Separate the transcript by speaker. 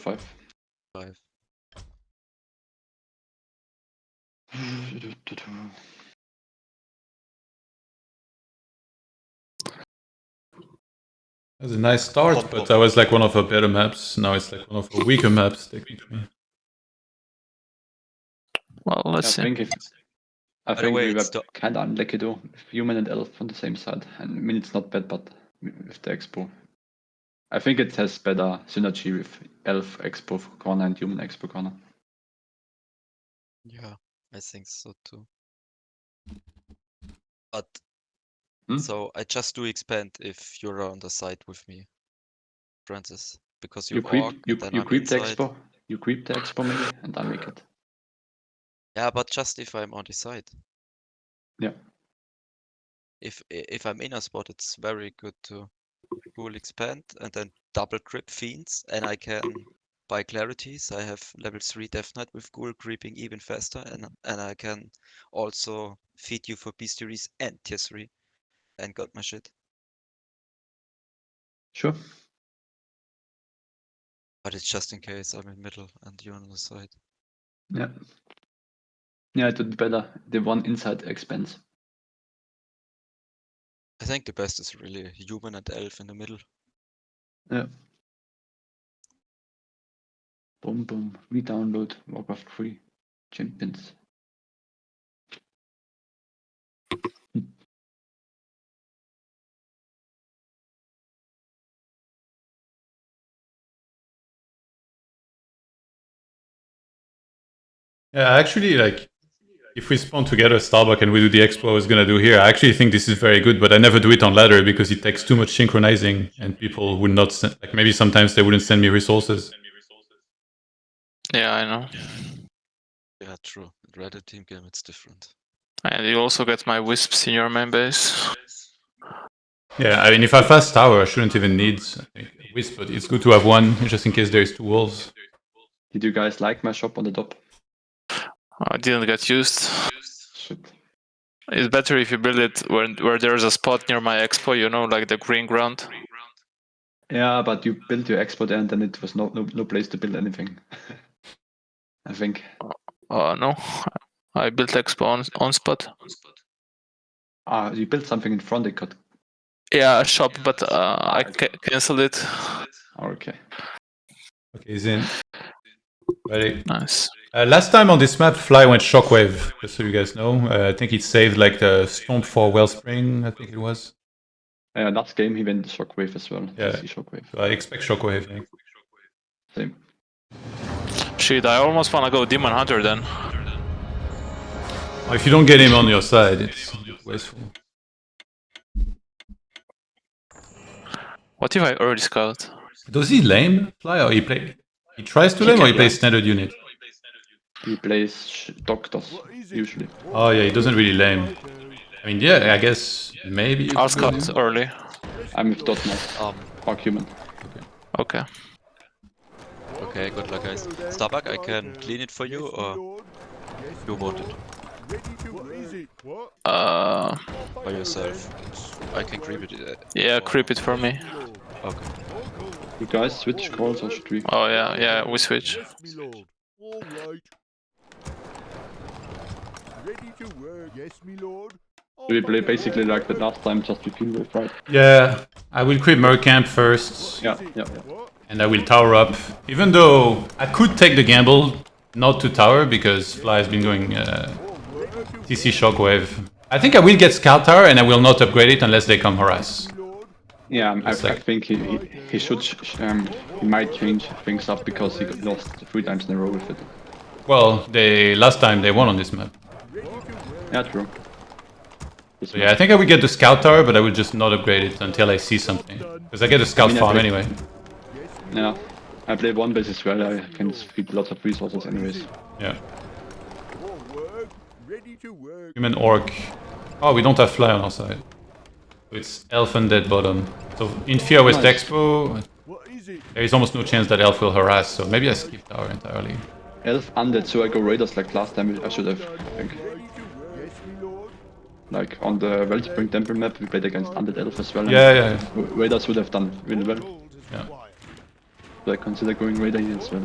Speaker 1: Five.
Speaker 2: Five.
Speaker 3: That's a nice start, but that was like one of her better maps. Now it's like one of her weaker maps, technically.
Speaker 4: Well,
Speaker 1: I
Speaker 4: let's see.
Speaker 1: think if I
Speaker 2: the
Speaker 1: think
Speaker 2: way,
Speaker 1: we were
Speaker 2: it's the-
Speaker 1: kind of unlucky though. With human and elf on the same side, and I mean it's not bad, but with the expo, I think it has better synergy with elf expo for corner and human expo corner.
Speaker 2: Yeah, I think so too. But
Speaker 1: Hmm?
Speaker 2: so I just do expand if you're on the side with me, Francis, because you,
Speaker 1: You
Speaker 2: orc,
Speaker 1: creep, you,
Speaker 2: then
Speaker 1: you
Speaker 2: I'm
Speaker 1: creep the
Speaker 2: inside.
Speaker 1: expo, you creep the expo maybe, and I make it.
Speaker 2: Yeah, but just if I'm on the side.
Speaker 1: Yeah.
Speaker 2: If i- if I'm in a spot, it's very good to cool expand and then double grip fiends, and I can buy clarities. I have level three death knight with ghoul creeping even faster, and and I can also feed you for bestiaries and tier three, and got my shit.
Speaker 1: Sure.
Speaker 2: But it's just in case I'm in middle and you're on the side.
Speaker 1: Yeah. Yeah, it would be better. The one inside expense.
Speaker 2: I think the best is really human and elf in the middle.
Speaker 1: Boom, boom. We download Warcraft 3 Champions.
Speaker 3: Yeah, actually, like if we spawn together Starbuck and we do the expo I was gonna do here, I actually think this is very good, but I never do it on ladder because it takes too much synchronizing, and people would not send, like maybe sometimes they wouldn't send me resources.
Speaker 4: Yeah, I know.
Speaker 2: Yeah, true. In Red team game, it's different.
Speaker 4: And you also get my wisps in your main base.
Speaker 3: Yeah, I mean, if I fast tower, I shouldn't even need a wisp, but it's good to have one just in case there is two wolves.
Speaker 1: Did you guys like my shop on the top?
Speaker 4: I didn't get used.
Speaker 1: Shit.
Speaker 4: It's better if you build it where where there's a spot near my expo, you know, like the green ground.
Speaker 1: Yeah, but you built your expo there and then it was not no, no place to build anything. I think.
Speaker 4: Uh, no, I built expo on, on spot.
Speaker 1: Ah, you built something in front, it got.
Speaker 4: Yeah, a shop, but uh, I ca- cancelled it.
Speaker 1: Oh, okay.
Speaker 3: Okay, Zin. Ready?
Speaker 4: Nice.
Speaker 3: Uh, last time on this map, Fly went Shockwave, just so you guys know. Uh, I think it saved like the Stomp for Wellspring, I think it was.
Speaker 1: Uh, last game he went Shockwave as well.
Speaker 3: Yeah.
Speaker 1: CC Shockwave.
Speaker 3: So I expect Shockwave. eh? I think.
Speaker 1: Same.
Speaker 4: Shit, I almost wanna go Demon Hunter then.
Speaker 3: Oh, if you don't get him on your side, it's wasteful.
Speaker 4: What if I already scout?
Speaker 3: Does he lame Fly or he play? He tries to
Speaker 4: He
Speaker 3: lame or
Speaker 4: can
Speaker 3: he plays
Speaker 4: lame.
Speaker 3: standard unit?
Speaker 1: He plays sh- Doctors, usually.
Speaker 3: Oh yeah, he doesn't really lame. I mean, yeah, I guess maybe. you
Speaker 4: I'll
Speaker 3: could go
Speaker 4: scout
Speaker 3: lame.
Speaker 4: early.
Speaker 1: I'm with Dotnet,
Speaker 2: Um,
Speaker 1: Argument.
Speaker 4: Okay.
Speaker 2: okay, good luck, guys. Starbuck, I can clean it for you, or you want it
Speaker 5: What is it? What?
Speaker 4: Uh,
Speaker 2: by yourself? I can creep it. uh,
Speaker 4: yeah,
Speaker 2: or-
Speaker 4: creep it for me.
Speaker 2: Okay.
Speaker 1: You guys switch calls or should we?
Speaker 4: Oh yeah, yeah, we switch.
Speaker 5: Yes, me lord. All right. Ready to work. Yes, me lord.
Speaker 1: Do we play basically like the last time, just with you, right?
Speaker 3: Yeah, I will creep Mercamp first,
Speaker 1: Yeah, yeah, yeah.
Speaker 5: What?
Speaker 3: and I will tower up. Even though I could take the gamble not to tower because Fly has been going. Uh,
Speaker 5: Ready to
Speaker 3: TC Shockwave. I think I will get Scout Tower and I will not upgrade it unless they come harass.
Speaker 5: lord.
Speaker 1: Yeah, I,
Speaker 3: It's
Speaker 1: I
Speaker 3: like-
Speaker 1: think he, he, he should ch- ch- um he might change things up because he got lost three times in a row with it.
Speaker 3: Well, they last time they won on this map.
Speaker 1: Yeah, true.
Speaker 3: So yeah, I think I will get the Scout Tower, but I will just not upgrade it until I see something. Because I get a Scout
Speaker 1: I mean, I
Speaker 3: farm
Speaker 1: think-
Speaker 3: anyway.
Speaker 1: Yeah, I play one base as well. I can feed lots of resources anyways.
Speaker 3: Yeah.
Speaker 5: All work. Ready to work.
Speaker 3: Human Orc. Oh, we don't have Fly on our side. So it's Elf and Dead Bottom. So in Fear West
Speaker 1: Nice.
Speaker 3: Expo,
Speaker 5: What is it?
Speaker 3: there is almost no chance that Elf will harass, so maybe I skip Tower entirely.
Speaker 1: Elf undead, so I go raiders like last time. I should have I think
Speaker 5: Ready to work. Yes, me lord.
Speaker 1: like on the Wellspring Temple map we played against undead elf as well. and
Speaker 3: Yeah, yeah, yeah.
Speaker 1: Raiders would have done really well.
Speaker 5: Gold is required.
Speaker 1: like consider going raiding as well.